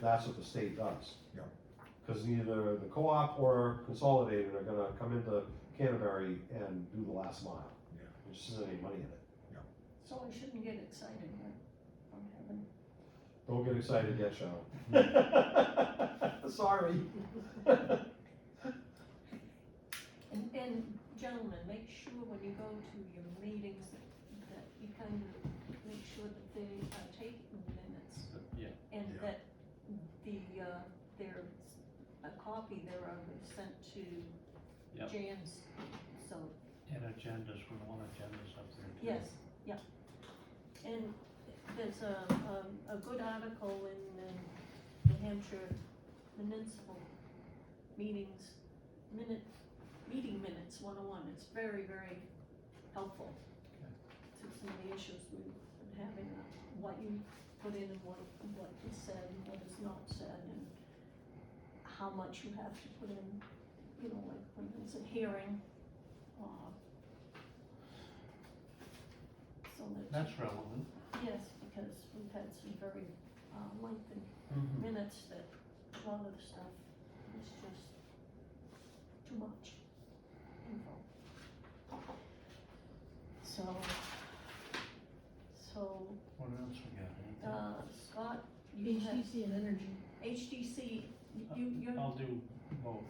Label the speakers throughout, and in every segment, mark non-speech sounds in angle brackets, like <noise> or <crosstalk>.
Speaker 1: that's what the state does.
Speaker 2: Yeah.
Speaker 1: Cause either the co-op or consolidated are gonna come into Canterbury and do the last mile.
Speaker 2: Yeah.
Speaker 1: There just isn't any money in it.
Speaker 3: So we shouldn't get excited, right? From heaven.
Speaker 1: Don't get excited yet,
Speaker 2: <laughs>
Speaker 1: Cheryl. Sorry.
Speaker 3: And, and gentlemen, make sure when you go to your meetings that- that you kind of make sure that they are taking minutes.
Speaker 4: Yeah.
Speaker 3: And
Speaker 2: Yeah.
Speaker 3: that the, uh, there's a copy thereof is sent to
Speaker 4: Yep.
Speaker 3: James, so,
Speaker 4: And agendas, we want agendas up there too.
Speaker 3: yes, yeah. And there's a, um, a good article in the New Hampshire Municipal Meetings, minute, meeting minutes one oh one, it's very, very helpful. To some of the issues we've been having, uh, what you put in and what, what is said and what is not said and how much you have to put in, you know, like when there's a hearing, uh. So that,
Speaker 4: That's relevant.
Speaker 3: yes, because we've had some very, uh, lengthy
Speaker 1: Mm-hmm.
Speaker 3: minutes that a lot of the stuff is just too much info. So, so,
Speaker 4: What else we got? Anything?
Speaker 3: uh, Scott, you have
Speaker 5: HTC and energy.
Speaker 3: HDC, you, you're,
Speaker 4: I'll do both.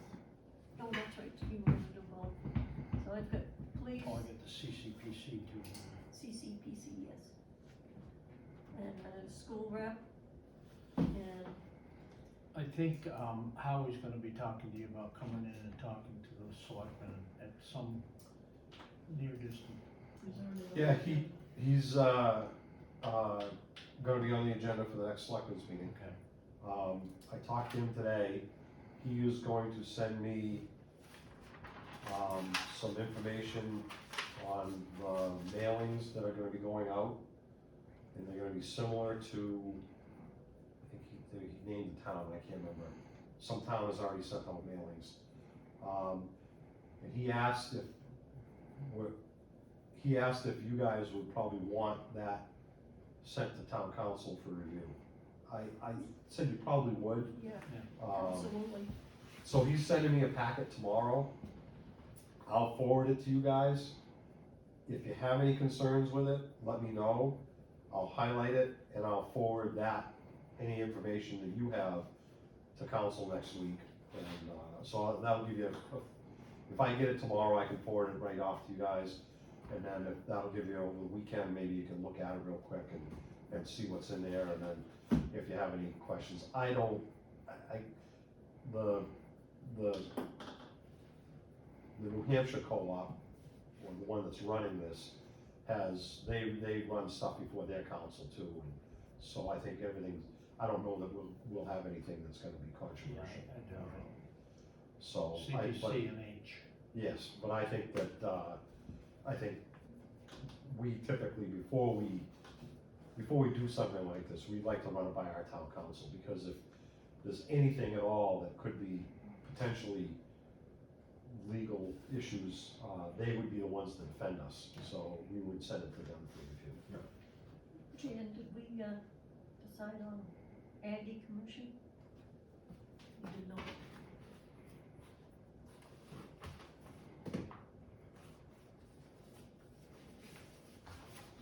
Speaker 3: no, that's right, you were to vote. So I've got police,
Speaker 4: Oh, I get the CCPC too.
Speaker 3: CCPC, yes. E And, uh, school rep, and
Speaker 4: I think, um, Howie's gonna be talking to you about coming in and talking to the selectmen at some near distant.
Speaker 1: Yeah, he, he's, uh, uh, gonna be on the agenda for the next selectmen's meeting.
Speaker 4: Okay.
Speaker 1: Um, I talked to him today, he is going to send me, um, some information on the mailings that are gonna be going out. And they're gonna be similar to, I think he, I think he named the town, I can't remember, some town has already sent out mailings. Um, and he asked if, what, he asked if you guys would probably want that sent to town council for review. I, I said you probably would,
Speaker 3: yeah,
Speaker 1: um,
Speaker 3: absolutely,
Speaker 1: so he's sending me a packet tomorrow. I'll forward it to you guys. If you have any concerns with it, let me know. I'll highlight it and I'll forward that, any information that you have to council next week. And, uh, so that'll give you, a- if I get it tomorrow, I can forward it right off to you guys. And then if that'll give you over the weekend, maybe you can look at it real quick and, and see what's in there. And then if you have any questions, I don't, I, I- the the, the New Hampshire co-op, or the one that's running this, has, they, they run stuff before their council too. and So I think everything, I don't know that we'll, we'll have anything that's gonna be
Speaker 4: Yeah,
Speaker 1: controversial.
Speaker 4: I- I do.
Speaker 1: So, Oh, I, but,
Speaker 4: CPC and H.
Speaker 1: yes, but I think that, uh, I think we typically, before we, before we do something like this, we'd like to run it by our town council, because if there's anything at all that could be potentially legal issues, uh, they would be the ones to defend us, so we would send it to them for review.
Speaker 3: Jan, did we, uh, decide on Aggie Commission? We did not.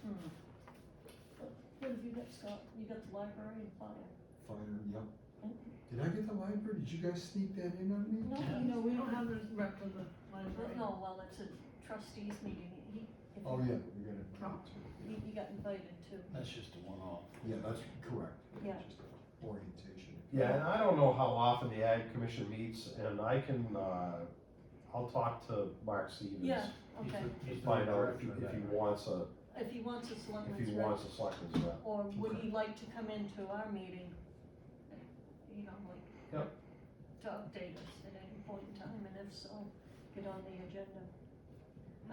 Speaker 3: Hmm. What have you got, Scott? You got the library and fire?
Speaker 2: Fire, yep. Did I get the library? Did you guys sneak that in on me?
Speaker 3: No,
Speaker 4: Yeah.
Speaker 5: You know, we don't have a rep of the
Speaker 3: well,
Speaker 5: library.
Speaker 3: no, well, it's a trustees meeting, he, if
Speaker 2: Oh,
Speaker 3: you-
Speaker 2: yeah, we got it.
Speaker 5: Oh.
Speaker 3: he, he got invited to.
Speaker 4: That's just a one-off.
Speaker 2: Yeah, that's correct.
Speaker 3: Yeah.
Speaker 2: Just Orientation.
Speaker 1: Yeah, and I don't know how often the Ag Commission meets, and I can, uh, I'll talk to Mark Stevens.
Speaker 3: Yeah,
Speaker 4: He's
Speaker 3: okay,
Speaker 4: the- he's the
Speaker 1: Find out if he,
Speaker 4: director of
Speaker 1: if he
Speaker 4: that.
Speaker 1: wants a,
Speaker 3: if he wants a
Speaker 1: if
Speaker 3: selectman's
Speaker 1: he
Speaker 3: rep.
Speaker 1: wants a selectman's rep.
Speaker 3: Or would he like to come into our meeting? You know, like.
Speaker 1: Yep.
Speaker 3: To update us at any point in time, and if so, get on the agenda.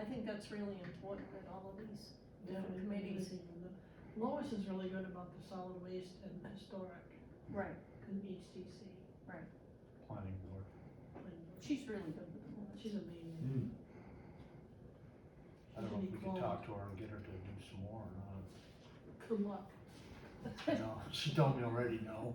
Speaker 3: I think that's really important that all of these,
Speaker 5: Yeah, we don't have
Speaker 3: Committees.
Speaker 5: anything on that. Lois is really good about the solid waste and historic,
Speaker 3: right,
Speaker 5: could be HTC.
Speaker 4: Planning board.
Speaker 5: and
Speaker 3: she's really good with them.
Speaker 5: She's amazing.
Speaker 2: Hmm.
Speaker 4: I don't know if we can talk to her and get her to do some more or
Speaker 5: Good luck.
Speaker 3: <laughs>
Speaker 4: not. No, she told me already, no.